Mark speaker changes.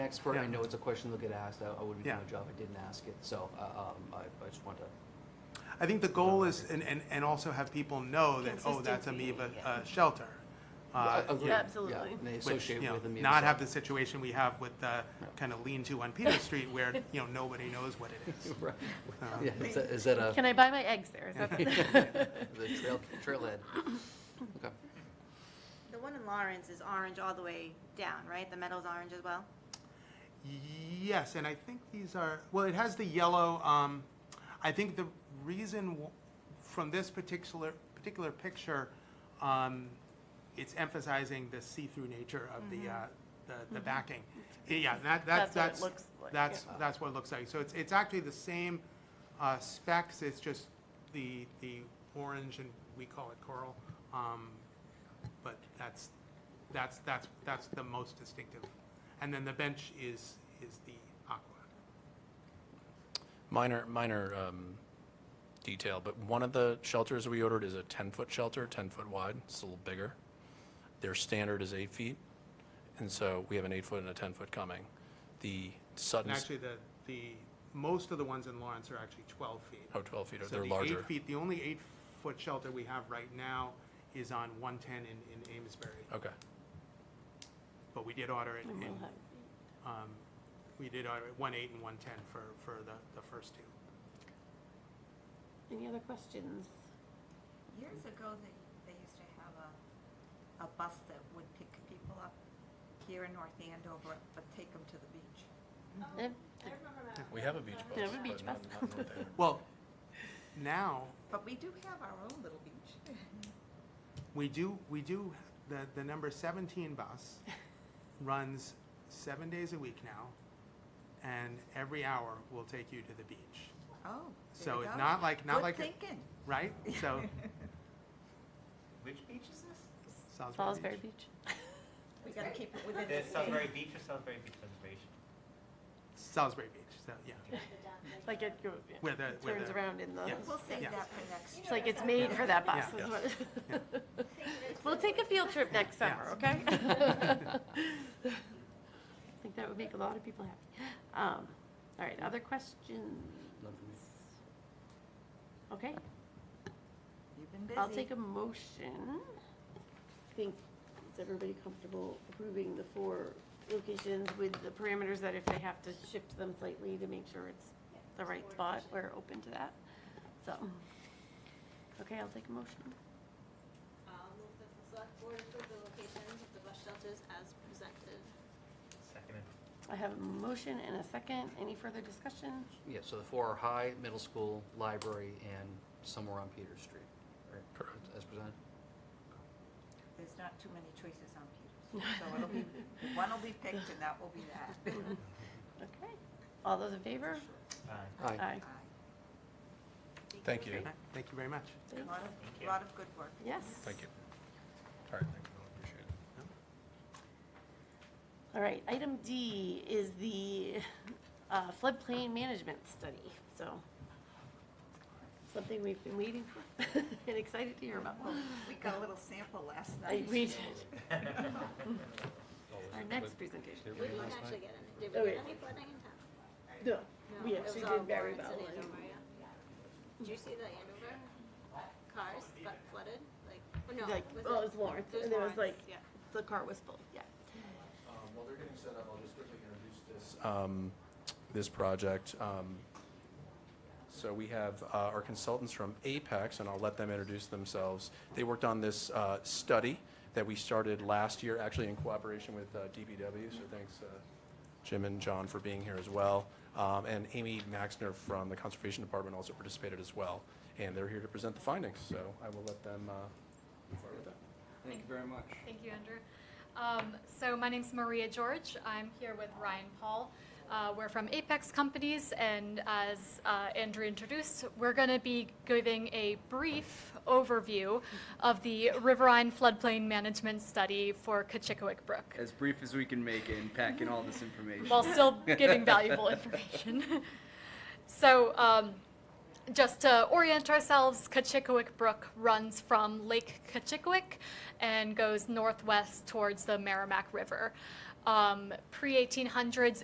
Speaker 1: expert. I
Speaker 2: Yeah.
Speaker 1: know it's a question they'll get asked. I I wouldn't do
Speaker 2: Yeah. Uh,
Speaker 1: my job. if I didn't ask it. So uh, um, I I just want to,
Speaker 2: I think the goal is, and, and, and also have people know that, oh, that's a
Speaker 3: Consistency,
Speaker 2: Amoeba
Speaker 3: yeah.
Speaker 2: uh, shelter. Uh,
Speaker 1: Agree.
Speaker 2: yeah,
Speaker 1: Yeah,
Speaker 3: Absolutely.
Speaker 1: And they
Speaker 2: which,
Speaker 1: associate
Speaker 2: you know,
Speaker 1: with them.
Speaker 2: Not have the situation we have with the kind of lean-to on Peter Street where, you know, nobody knows what it is.
Speaker 1: Right.
Speaker 2: Uh,
Speaker 1: Yeah, is that- is that a,
Speaker 3: Can I buy my eggs there? Is that
Speaker 1: the trail, trailhead? Okay.
Speaker 4: The one in Lawrence is orange all the way down, right? The metal's orange as well?
Speaker 2: Yes, and I think these are, well, it has the yellow, um, I think the reason w- from this particular, particular picture, um, it's emphasizing the see-through nature of the, uh, the, the backing. Yeah, that, that,
Speaker 3: Mm-hmm. That's what it
Speaker 2: that's,
Speaker 3: looks like,
Speaker 2: that's,
Speaker 3: yeah.
Speaker 2: that's what it looks like. So it's, it's actually the same, uh, specs, it's just the, the orange and we call it coral. Um, but that's, that's, that's, that's the most distinctive. And then the bench is, is the aqua.
Speaker 5: Minor, minor um, detail, but one of the shelters we ordered is a 10-foot shelter, 10-foot wide, it's a little bigger. Their standard is eight feet, and so we have an eight-foot and a 10-foot coming. The
Speaker 2: And
Speaker 5: Sutton's,
Speaker 2: actually, the, the, most of the ones in Lawrence are actually twelve feet.
Speaker 5: oh, 12 feet,
Speaker 2: So
Speaker 5: they're
Speaker 2: the
Speaker 5: larger.
Speaker 2: eight feet, the only eight-foot shelter we have right now is on one-ten in, in Amesbury.
Speaker 5: Okay,
Speaker 2: But we did order it in,
Speaker 3: what?
Speaker 2: um, we did order it one-eight and one-ten for, for the, the first two.
Speaker 3: Any other questions?
Speaker 4: Years ago, they, they used to have a, a bus that would pick people up here in North Andover, but take them to the beach.
Speaker 3: Eh,
Speaker 5: we have a beach
Speaker 3: They
Speaker 5: bus,
Speaker 3: have a beach
Speaker 5: but not
Speaker 3: bus.
Speaker 5: not in North Andover.
Speaker 2: Well, now,
Speaker 4: But we do have our own little beach.
Speaker 2: We do, we do, the, the number seventeen bus runs seven days a week now, and every hour will take you to the beach,
Speaker 4: Oh, there
Speaker 2: So
Speaker 4: you
Speaker 2: it's
Speaker 4: go.
Speaker 2: not like- not
Speaker 4: Good
Speaker 2: like a-
Speaker 4: thinking.
Speaker 2: right? So
Speaker 6: Which beach is this?
Speaker 3: Salisbury
Speaker 2: Salisbury Beach.
Speaker 3: Beach.
Speaker 4: We gotta keep it within the
Speaker 6: There's
Speaker 4: state.
Speaker 6: Salisbury Beach or Salisbury Beach Reservation?
Speaker 2: Salisbury Beach, so, yeah,
Speaker 3: Like it goes, yeah,
Speaker 2: where the, where
Speaker 3: turns
Speaker 2: the-
Speaker 3: around in the,
Speaker 2: yeah.
Speaker 4: We'll save
Speaker 2: Yeah.
Speaker 4: that for next
Speaker 3: it's like it's made for that bus.
Speaker 2: Yeah.
Speaker 3: is what- We'll take a field trip next summer,
Speaker 2: Yeah.
Speaker 3: okay? I think that would make a lot of people happy. Um, All right, other questions?
Speaker 1: None for me.
Speaker 3: Okay,
Speaker 4: You've been busy.
Speaker 3: I'll take a motion. I think, is everybody comfortable approving the four locations with the parameters that if they have to shift them slightly to make sure it's the right spot, we're open to that? So, okay, I'll take a motion.
Speaker 7: I'll move that the select board approve the locations of the bus shelters as presented.
Speaker 6: Second.
Speaker 3: I have a motion and a second. Any further discussion?
Speaker 1: Yeah, so the four are high, middle school, library, and somewhere on Peters Street. right?
Speaker 5: Correct.
Speaker 1: As presented?
Speaker 4: There's not too many choices on Peters, so it'll be, one will be picked and that will be that.
Speaker 3: Okay. All those in favor?
Speaker 6: Aye.
Speaker 1: Aye.
Speaker 4: Aye.
Speaker 5: Thank you,
Speaker 2: Alright, Thank you very much.
Speaker 4: A lot
Speaker 6: Thank
Speaker 4: of,
Speaker 6: you.
Speaker 4: lot of good work.
Speaker 3: Yes.
Speaker 5: thank you. All right, thank you, appreciate it.
Speaker 3: All right, item D is the uh, floodplain management study, so something we've been waiting for and excited to hear about.
Speaker 4: Well, We got a little sample last
Speaker 3: I
Speaker 4: night.
Speaker 3: read our next presentation.
Speaker 7: We didn't actually get any, did
Speaker 3: Oh,
Speaker 7: we
Speaker 3: yeah.
Speaker 7: get any flooding in town?
Speaker 3: No,
Speaker 7: No,
Speaker 3: we
Speaker 7: it
Speaker 3: actually
Speaker 7: was all
Speaker 3: did very well.
Speaker 7: Lawrence and Andover, yeah. Did you see the Andover cars got flooded, like, oh, no, was
Speaker 3: Like,
Speaker 7: it?
Speaker 3: well, it was Lawrence,
Speaker 7: It was
Speaker 3: and there was like,
Speaker 7: Lawrence, yeah.
Speaker 3: the car was full, yeah.
Speaker 5: Um, While they're getting set up, I'll just quickly introduce this. um, This project. Um, So we have uh, our consultants from Apex, and I'll let them introduce themselves. They worked on this uh, study that we started last year, actually in cooperation with uh, DBW, so thanks uh, Jim and John for being here as well. Um, And Amy Maxner from the Conservation Department also participated as well, and they're here to present the findings, so I will let them uh, move forward with that.
Speaker 8: Thank you very much. Thank you, Andrew. Um, so my name's Maria George. I'm here with Ryan Paul. Uh, we're from Apex Companies, and as uh, Andrew introduced, we're going to be giving a brief overview of the Riverine Floodplain Management Study for Kachikowick Brook,
Speaker 9: as brief as we can make it and pack in all this information.
Speaker 8: while still giving valuable information. so. Um, just to orient ourselves, Kachikowick Brook runs from Lake Kachikowick and goes northwest towards the Merrimack River. Um, Pre-1800s